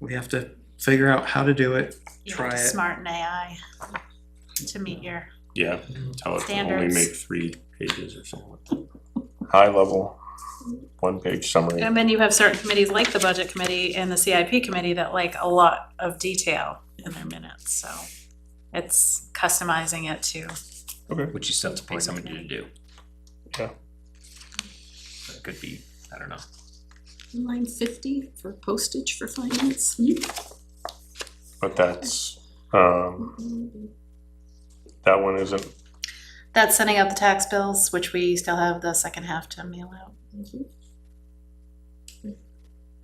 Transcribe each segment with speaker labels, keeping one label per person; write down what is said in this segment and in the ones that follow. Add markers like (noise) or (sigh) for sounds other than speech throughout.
Speaker 1: We have to figure out how to do it.
Speaker 2: You
Speaker 1: Try
Speaker 2: have to
Speaker 1: it.
Speaker 2: smarten AI to meet your,
Speaker 3: Yeah, tell it to only
Speaker 2: Standards.
Speaker 3: make three pages or something.
Speaker 4: high level, one page summary.
Speaker 2: and then you have certain committees like the budget committee and the CIP committee that like a lot of detail in their minutes, so. It's customizing it to,
Speaker 5: which you still have to pay someone to do.
Speaker 4: Yeah.
Speaker 5: That could be, I don't know.
Speaker 6: Line fifty for postage for finance. Hmm.
Speaker 4: But that's, um, that one isn't,
Speaker 2: that's sending out the tax bills, which we still have the second half to mail out.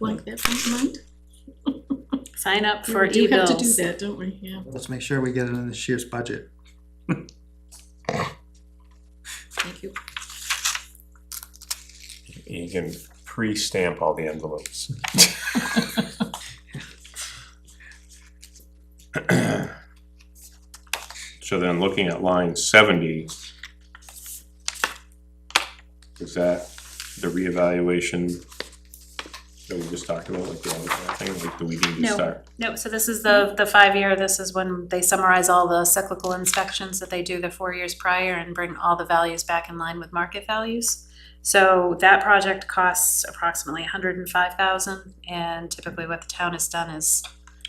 Speaker 6: Like that front of mind?
Speaker 2: Sign up
Speaker 6: Yeah,
Speaker 2: for
Speaker 6: We do have
Speaker 2: e-bills.
Speaker 6: to do that, don't we? Yeah.
Speaker 1: Let's make sure we get it in this year's budget.
Speaker 6: Thank you.
Speaker 4: you can pre-stamp all the envelopes.
Speaker 3: So then looking at line seventy. Is that the reevaluation that we just talked about, like the other thing, like do we need to
Speaker 2: No.
Speaker 3: start?
Speaker 2: No, so this is the, the five-year, this is when they summarize all the cyclical inspections that they do the four years prior and bring all the values back in line with market values. So that project costs approximately hundred and five thousand, and typically what the town has done is,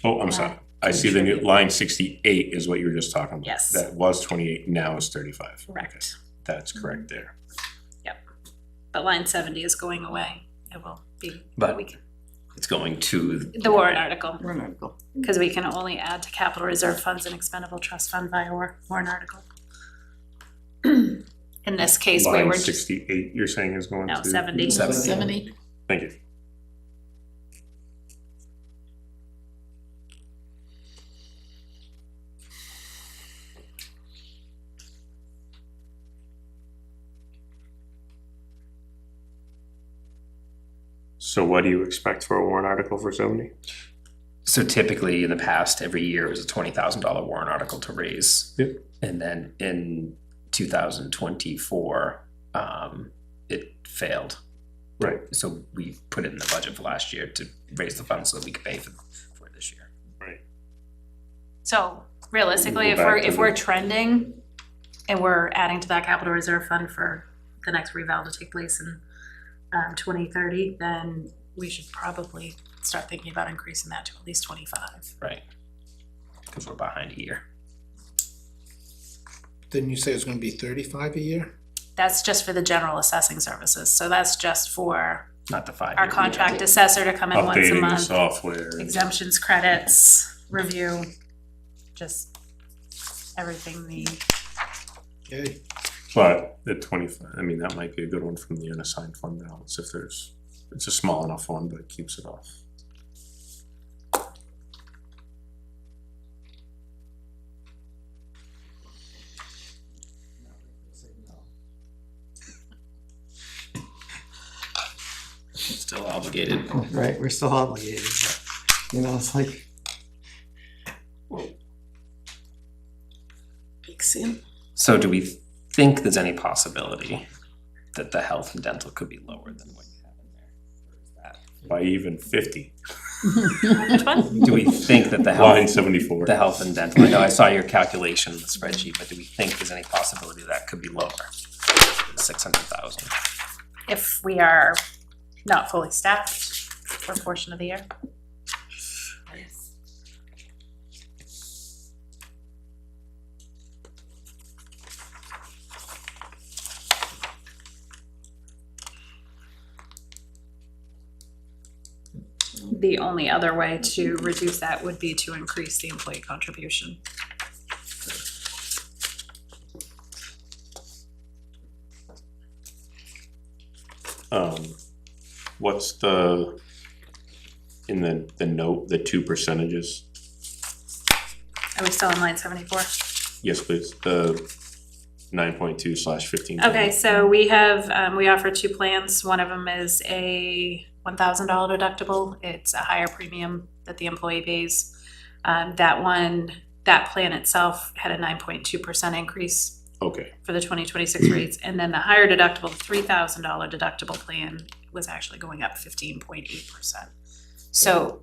Speaker 3: Oh, I'm
Speaker 2: Uh,
Speaker 3: sorry, I see the new, line sixty-eight is what you were just talking about.
Speaker 2: Yes.
Speaker 3: That was twenty-eight, now is thirty-five. Okay,
Speaker 2: correct, Mm-hmm.
Speaker 3: That's correct there.
Speaker 2: but line seventy is going away, it will be.
Speaker 5: But-
Speaker 2: we can-
Speaker 5: It's going to.
Speaker 2: The warrant article,
Speaker 6: One article.
Speaker 2: because we can only add to capital reserve funds and expendable trust fund via war- warrant article. (clears throat) In this case, we
Speaker 3: Line
Speaker 2: were just,
Speaker 3: sixty-eight, you're saying is going to?
Speaker 2: no, seventy.
Speaker 5: Seventy.
Speaker 6: Seventy.
Speaker 3: Thank you. So what do you expect for a warrant article for seventy?
Speaker 5: So typically in the past, every year it was a twenty thousand dollar warrant article to raise.
Speaker 3: Yep.
Speaker 5: And then in two thousand twenty-four, um, it failed.
Speaker 3: Right.
Speaker 5: So we put it in the budget for last year to raise the funds so that we could pay for, for it this year.
Speaker 2: So realistically,
Speaker 3: Go
Speaker 2: if we're,
Speaker 3: back to
Speaker 2: if we're
Speaker 3: the-
Speaker 2: trending and we're adding to that capital reserve fund for the next reval to take place in um, twenty thirty, then we should probably start thinking about increasing that to at least twenty-five.
Speaker 5: Right. Cause we're behind a year.
Speaker 7: Didn't you say it was gonna be thirty-five a year?
Speaker 2: That's just for the general assessing services, so that's just for
Speaker 5: Not the five.
Speaker 2: our contract assessor to come in once a
Speaker 3: Updating the
Speaker 2: month,
Speaker 3: software.
Speaker 2: exemptions, credits, review, just everything the,
Speaker 7: Okay,
Speaker 3: But the twenty-five, I mean, that might be a good one from the unassigned fund balance if there's, it's a small enough one, but it keeps it off.
Speaker 5: Still obligated.
Speaker 1: Right, we're still obligated, but, you know, it's like,
Speaker 6: Big Sam.
Speaker 5: So do we think there's any possibility that the health and dental could be lower than what you have in there? Or is that-
Speaker 3: By even fifty,
Speaker 2: which one?
Speaker 5: Do we think that the
Speaker 3: line
Speaker 5: health,
Speaker 3: seventy-four.
Speaker 5: the health and dental, I know I saw your calculation in the spreadsheet, but do we think there's any possibility that could be lower? Six hundred thousand,
Speaker 2: if we are not fully staffed for a portion of the year. The only other way to reduce that would be to increase the employee contribution.
Speaker 3: Um, what's the, in the, the note, the two percentages?
Speaker 2: Are we still in line seventy-four?
Speaker 3: Yes, please, the nine point two slash fifteen.
Speaker 2: Okay, so we have, um, we offer two plans. One of them is a one thousand dollar deductible. It's a higher premium that the employee pays. Um, that one, that plan itself had a nine point two percent increase
Speaker 3: Okay,
Speaker 2: for the twenty twenty-six rates. And then the higher deductible, three thousand dollar deductible plan was actually going up fifteen point eight percent. So